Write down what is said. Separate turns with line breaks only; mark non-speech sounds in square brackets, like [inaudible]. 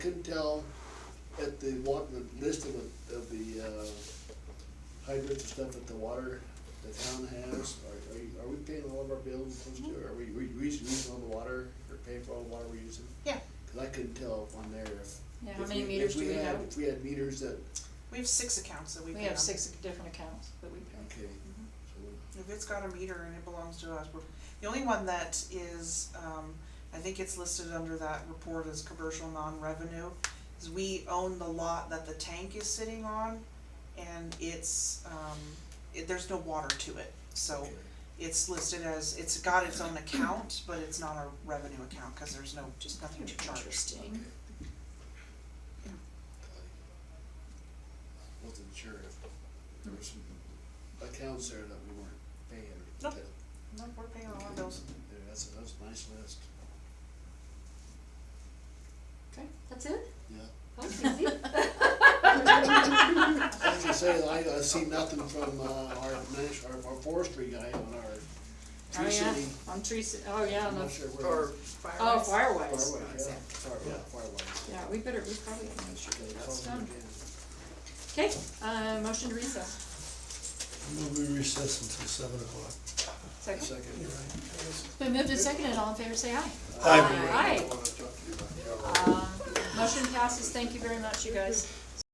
couldn't tell at the wa, the list of, the- of the, uh, hydrants and stuff that the water, the town has, are, are you, are we paying all of our bills supposed to, are we, we we using all the water, or paying for all the water we're using?
Yeah.
Cause I couldn't tell on there if.
Yeah, how
if
many
we-
meters
if
do we
had-
have?
If we had meters that,
We have six accounts that we pay
We have
on.
six different accounts that we pay.
okay, so,
If it's got a meter and it belongs to us, we're, the only one that is, um, I think it's listed under that report as commercial non-revenue, is we own the lot that the tank is sitting on, and it's, um, it, there's no water to it, so
okay.
it's listed as, it's got its own account, but it's not a revenue account, cause there's no, just nothing to charge.
Interesting.
Okay. Wasn't sure if there were some accounts there that we weren't paying. or-
Nope. No, we're paying all our
Okay.
bills.
Yeah, that's, a- that's a nice list,
Okay.
That's it?
yeah.
That was
[laughs]
[laughs]
easy.
I was gonna say, I, I see nothing from, uh, our, nat- our, our forestry guy on our
Oh,
tree
yeah,
city.
on Tree City, oh, yeah,
I'm
on
not
the,
sure where.
or,
it is.
oh,
Fireworks.
Firewise.
Fireway, yeah, fire, yeah, fireway.
Yeah, we better, we probably have to make sure
Okay,
that that's
phone
done.
again.
Okay, uh, motion to recess.
We'll be recessed until seven o'clock.
Second.
Second. Uh,
You're right.
It's been moved and seconded, all in favor, say aye.
Aye.
Uh, Aye. Um, motion passes, thank you very much, you guys.